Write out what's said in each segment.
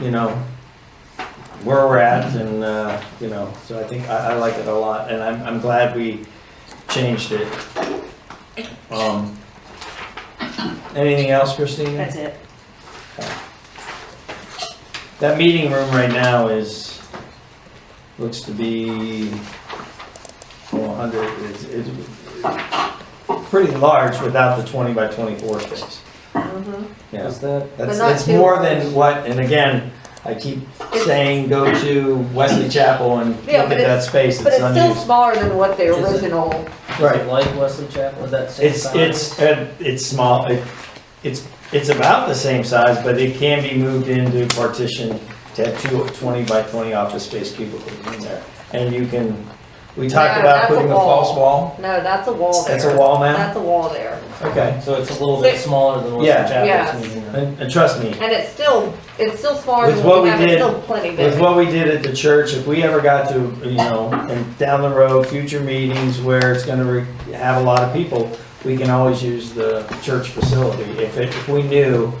you know, where we're at and, uh, you know, so I think, I, I like it a lot and I'm, I'm glad we changed it. Um, anything else, Christina? That's it. That meeting room right now is, looks to be, oh, well, under, is, is pretty large without the twenty by twenty-four space. Yeah, Is that, that's, not that's too more large. than what, and again, I keep saying, go to Wesley Chapel and look Yeah, at but that it's- space, But it's it's still unused. smaller than what the Is it? original, is it like Wesley Chapel, is that same It's, size? it's, uh, it's small, it, it's, it's about the same size, but it can be moved into partition to have two 20 by twenty office space cubicles in there. And you can, we talked Yeah, about that's a putting a wall. false wall, no, that's a wall there. that's a wall now, That's a wall there. okay. So it's a little bit Six- smaller than Wesley Yeah. Chapel. Yes. it's easier. And, and trust me, And it's still, it's still smaller With than what what we we have, it's did- still plenty With big. what we did at the church, if we ever got to, you know, and down the road, future meetings where it's gonna re- have a lot of people, we can always use the church facility. If it, if we knew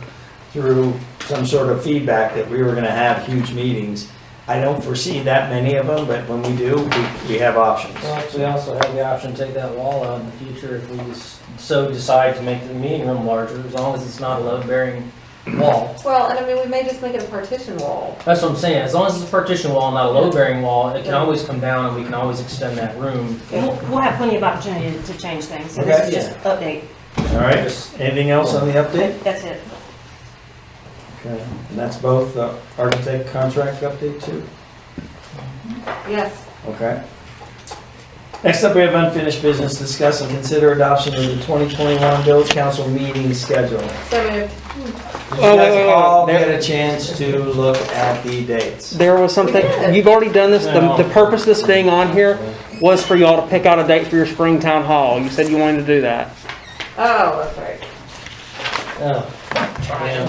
through some sort of feedback that we were gonna have huge meetings, I don't foresee that many of them, but when we do, we, we have options. Well, we also have the option to take that wall out in the future if we s- so decide to make the meeting room larger, as long as it's not a load-bearing wall. Well, and I mean, we may just make it a partition wall. That's what I'm saying, as long as it's a partition wall, not a load-bearing wall, it can always come down and we can always extend that room. We'll, we'll have plenty of opportunity to- to change things, so this is just update. All right, anything else on the update? That's it. Okay, and that's both the architect contract update too? Yes. Okay. Next up, we have unfinished business, discuss and consider adoption of the 2021 village council meeting schedule. Did So moved. you Wait, wait, wait, guys wait. all There- get a chance to look at the dates? There was something, We did. you've already done this, the, the purpose of this being on here was for y'all to pick out a date for your spring town hall. You said you wanted to do that. Oh, that's right. Oh, yeah.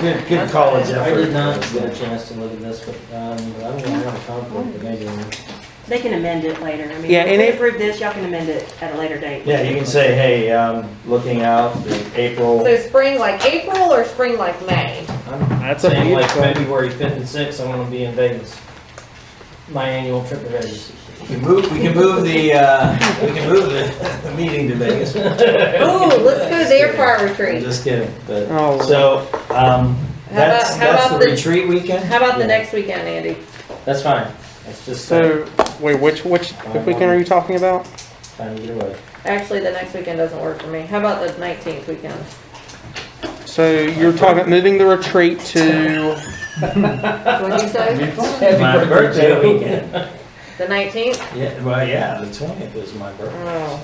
Good, good college I did not effort. get a chance to look at this, but, um, I don't know, I have a conflict, but maybe. They can amend it later. I mean, Yeah, if and we it- approve this, y'all can amend it at a later date. Yeah, you can say, hey, um, looking out, the April, So spring like April or spring like May? I'm That's up to saying you. like February fifth and sixth, I wanna be in Vegas. My annual trip to Vegas. we can move, we can move the, uh, we can move the, the meeting to Vegas. Ooh, let's go there for our I'm retreat. just kidding, but, Oh. so, um, How that's, that's about- how the about the- retreat weekend? How about Yeah. the next weekend, Andy? That's fine, that's just, uh, So, wait, which, which weekend are you talking about? fine either way. Actually, the next weekend doesn't work for me. How about the nineteenth weekend? So you're talking about moving the retreat to, What'd you say? My birthday weekend. The nineteenth? Yeah, well, yeah, the 20th is my birthday. Oh.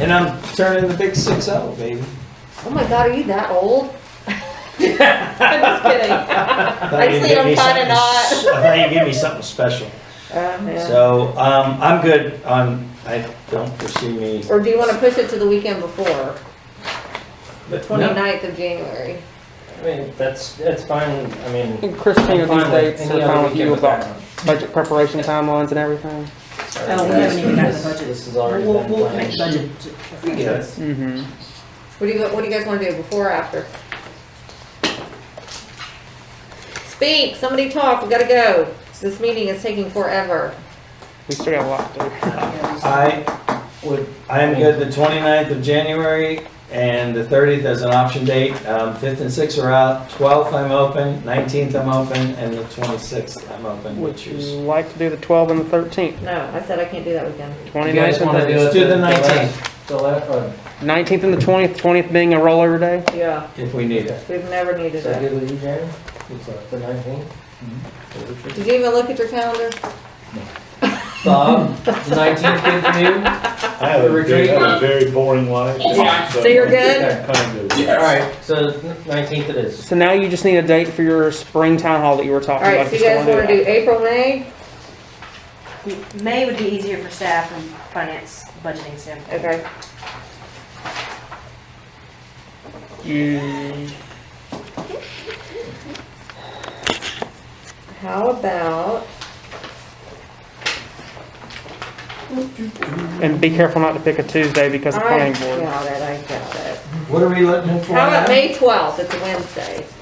And I'm turning the big six oh, baby. Oh my god, are you that old? I'm just kidding. Actually, I'm kinda I not. thought you'd give me something special. Oh, man. So, um, I'm good on, I don't foresee me. Or do you want to push it to the weekend before, the No. 29th of January? I mean, that's, that's fine, I mean. Christine, I'm are fine with these dates any are other fine with weekend you with about that. budget preparation timelines and everything? Oh, we haven't even gotten the budget. This is already We'll, been we'll planned. make budget. We get it. Mm-hmm. What do you, what do you guys want to do, before or after? Speak, somebody talk, we gotta go. This meeting is taking forever. We still got a lot to I would, I am good the 29th of January and the thirtieth as an option date. Um, fifth and sixth are out, twelfth I'm open, nineteenth I'm open, and the twenty-sixth I'm do. open, Would which you is. like to do the 12 and the 13th? No, I said I can't do that weekend. You guys 29th wanna and do the it? Let's do the last- 19th. The last, uh, 19th and the 20th, 20th being a rollover day? Yeah, If we need it. we've never is needed that it. good with you, Jeremy? It's uh, the nineteenth? Mm-hmm. Did you even look at your calendar? Bob, is the nineteenth good for you? I have a very, Retreat. I have a very boring life. So you're good? Okay. Kind of. Alright, so nineteenth it is. So now you just need a date for your spring town hall that you were talking about. Alright, so if you guys still want to do April, May? May would be easier for staff from finance budgeting standpoint. Okay. that. You, How about, and be careful not to pick a Tuesday because of I planning board. got it, I got it. What are we looking for How about now? May 12th? It's a Wednesday.